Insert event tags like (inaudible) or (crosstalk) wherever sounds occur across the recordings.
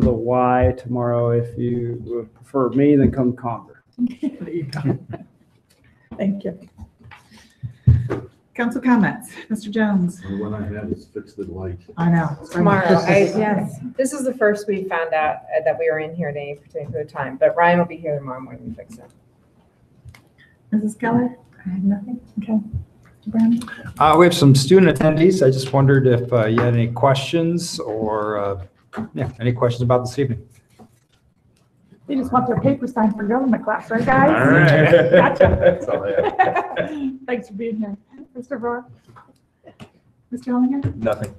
the Y tomorrow. If you would prefer me, then come Conger. There you go. (laughs) Thank you. Council comments, Mr. Jones? The one I have is fix the light. I know. Tomorrow, I- Yes. This is the first we found out uh, that we were in here at any particular time, but Ryan will be here tomorrow morning to fix it. Mrs. Keller? I have nothing. Okay. Brown? Uh, we have some student attendees. I just wondered if uh, you had any questions or, uh, yeah, any questions about this evening? They just want their paper signed for government class, right, guys? All (laughs) right. Gotcha. (laughs) That's all I have. (laughs) Thanks for being here. Mr. Rohr? Mr. Hellinger? Nothing.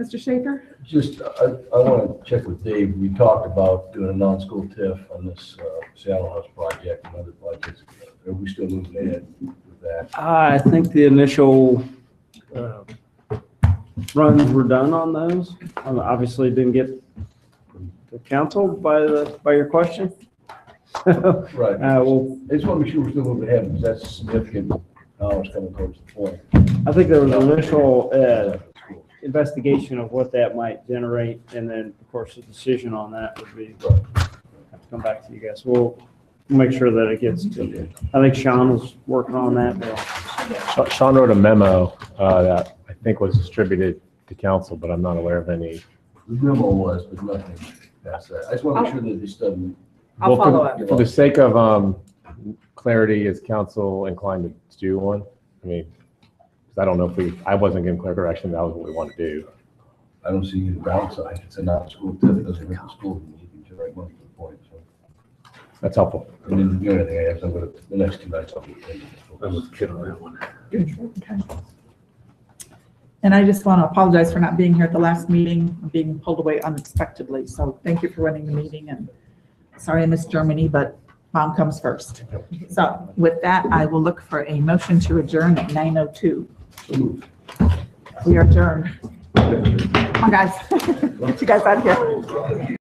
Mr. Schaefer? Just, I, I want to check with Dave. We talked about doing a non-school TIF on this uh, Saddle House project and other projects. Are we still moving ahead with that? I think the initial uh, runs were done on those. Um, Obviously didn't get the council by the, by your question. (laughs) Uh, Right. Well, I just want to make sure we're still moving ahead because that's significant. Now it's coming close to the point. I think there was an initial uh, investigation of what that might generate, and then, of course, the decision on that would be, have to come back to you guys. We'll make sure that it gets to, I think Sean was working on that. but- Sean- Sean wrote a memo uh, that I think was distributed to council, but I'm not aware of any. The memo was, but nothing past that. I just want to make sure that this doesn't. I'll Well, for- follow up. For the sake of um, clarity, is council inclined to do one? I mean, 'cause I don't know if we, I wasn't given clear direction, that was what we want to do. I don't see any downside. It's a non-school TIF. It doesn't hurt the school. You can generate money for the point. So, That's helpful. I didn't do anything. I have to, go to the next two nights, I'll be. attending. I'm with kid on that one. Okay. And I just want to apologize for not being here at the last meeting, being pulled away unexpectedly. So thank you for running the meeting and sorry I missed Germany, but mom comes first. So with that, I will look for a motion to adjourn at 9:02. So moved. (laughs) We are adjourned. Come on, guys. Get you guys out of here.